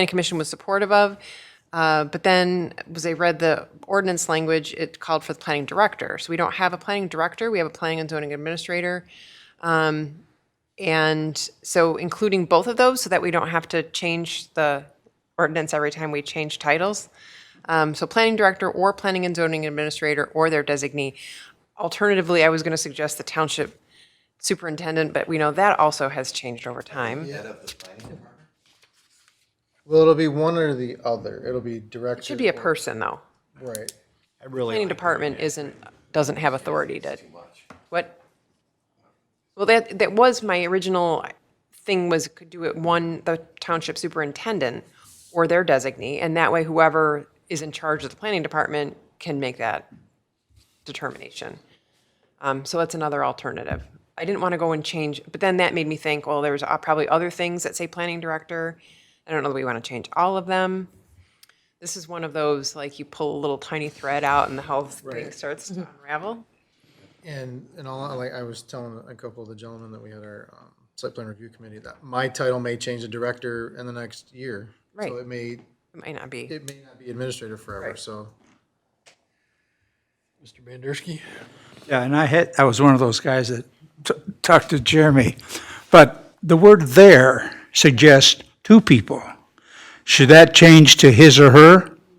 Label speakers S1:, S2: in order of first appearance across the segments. S1: Planning Commission was supportive of. Uh, But then, was they read the ordinance language, it called for the planning director. So we don't have a planning director, we have a planning and zoning administrator. Um, And so including both of those so that we don't have to change the ordinance every time we change titles. Um, So planning director or planning and zoning administrator or their designee. Alternatively, I was going to suggest the township superintendent, but we know that also has changed over time.
S2: Head of the planning department?
S3: Well, it'll be one or the other. It'll be director.
S1: Should be a person, though.
S3: Right.
S4: I really
S1: Planning
S4: like-
S1: department isn't, doesn't have authority to, what? Well, that, that was my original thing was could do it one, the township superintendent or their designee, and that way whoever is in charge of the planning department can make that determination. Um, so that's another alternative. I didn't want to go and change, but then that made me think, well, there's uh, probably other things that say planning director. I don't know that we want to change all of them. This is one of those, like you pull a little tiny thread out and the whole thing starts to unravel.
S3: And, and all, like I was telling a couple of the gentlemen that we had our um, site plan review committee, that my title may change to director in the next year.
S1: Right.
S3: So it may,
S1: It might not be.
S3: it may not be administrator forever,
S1: Right.
S3: so. Mr. Bandersky?
S5: Yeah, and I had, I was one of those guys that t- talked to Jeremy. But the word "there" suggests two people. Should that change to his or her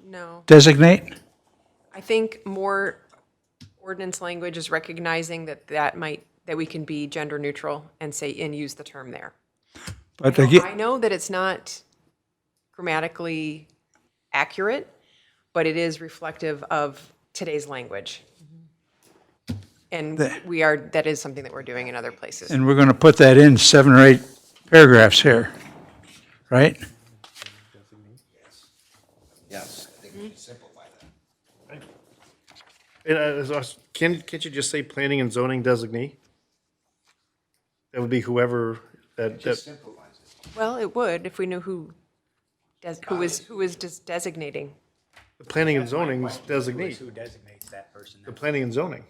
S1: No.
S5: designate?
S1: I think more ordinance language is recognizing that that might, that we can be gender neutral and say, and use the term there.
S5: But
S1: I
S5: again,
S1: know that it's not grammatically accurate, but it is reflective of today's language. And we are, that is something that we're doing in other places.
S5: and we're going to put that in seven or eight paragraphs here, right?
S2: Yes, I think we should simplify that.
S6: And I was- I was- can, can't you just say planning and zoning designee? That would be whoever that, that,
S2: Simplifies it.
S1: Well, it would if we knew who, des- who is, who is des- designating.
S6: the planning and zoning is
S4: It's
S6: designee,
S4: Who designates that person?
S6: the planning and zoning.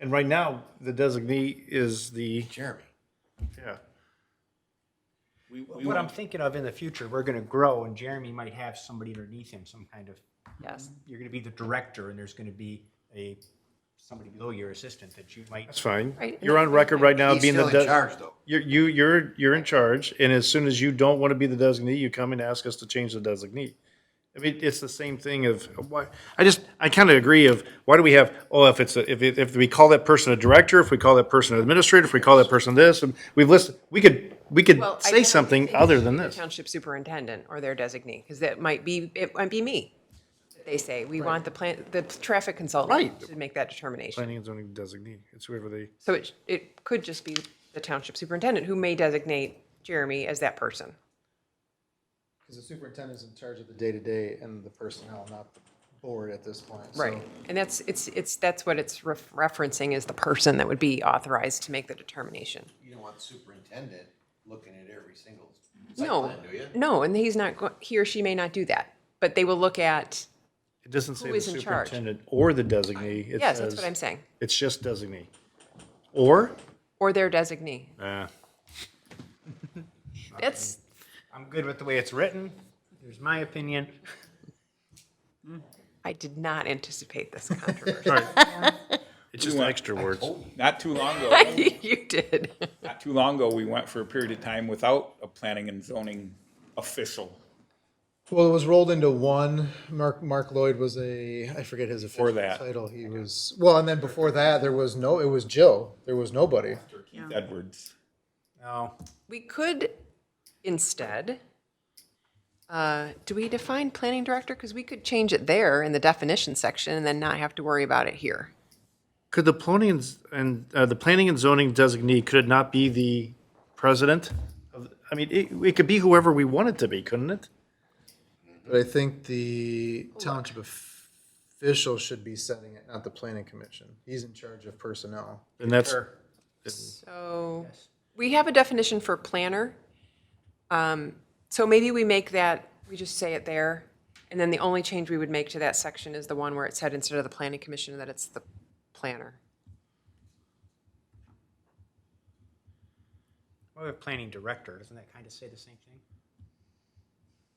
S6: And right now, the designee is the,
S2: Jeremy.
S6: yeah,
S2: we- we
S4: What I'm
S2: want-
S4: thinking of in the future, we're gonna grow and Jeremy might have somebody underneath him, some kind of,
S1: Yes.
S4: you're gonna be the director and there's gonna be a, somebody below your assistant that you might,
S6: that's fine.
S1: Right.
S6: You're on record right now
S2: He's
S6: being the,
S2: still in
S6: de-
S2: charge, though.
S6: you're, you, you're, you're in charge. And as soon as you don't want to be the designee, you come and ask us to change the designee. I mean, it's the same thing of why, I just, I kind of agree of, why do we have, oh, if it's, a- if, it- if we call that person a director, if we call that person an administrator, if we call that person this, and we've listed, we could, we could
S1: Well, I
S6: say
S1: definitely
S6: something
S1: think
S6: other than
S1: the
S6: this.
S1: Township superintendent or their designee, because that might be, it might be me. They say, we want the plan, the traffic consultant
S6: Right.
S1: to make that determination.
S6: Planning and zoning designee, it's whoever they,
S1: So it, it could just be the township superintendent who may designate Jeremy as that person.
S3: Because the superintendent's in charge of the day-to-day and the personnel, not the board at this point. so-
S1: Right. And that's, it's, it's, that's what it's ref- referencing is the person that would be authorized to make the determination.
S2: You don't want superintendent looking at every single site
S1: No,
S2: plan, do you?
S1: no, and he's not, go- he or she may not do that, but they will look at,
S6: it doesn't say
S1: Who
S6: the
S1: is in charge?
S6: superintendent or the designee. It
S1: yes, that's
S6: says-
S1: what I'm saying,
S6: It's just designee. Or?
S1: or their designee.
S6: Nah.
S1: That's,
S4: I'm good with the way it's written. There's my opinion.
S1: I did not anticipate this controversy.
S6: It's just extra words.
S7: Not too long ago,
S1: You did.
S7: not too long ago, we went for a period of time without a planning and zoning official
S3: Well, it was rolled into one. Mark Mark Lloyd was a I forget his official
S7: that.
S3: title. He was well, and then before that there was no. It was Jill. There was nobody.
S7: Edwards.
S4: No,
S1: We could instead, uh, do we define planning director? Because we could change it there in the definition section and then not have to worry about it here.
S6: Could the planning and z- and, uh, the planning and zoning designee, could it not be the president? of- I mean, it, it could be whoever we want it to be, couldn't it?
S3: But I think the township official should be setting it, not the planning commission. He's in charge of personnel.
S6: And that's,
S1: So we have a definition for planner. Um, So maybe we make that, we just say it there. And then the only change we would make to that section is the one where it said instead of the planning commission, that it's the planner.
S4: what about planning director? Doesn't that kind of say the same thing?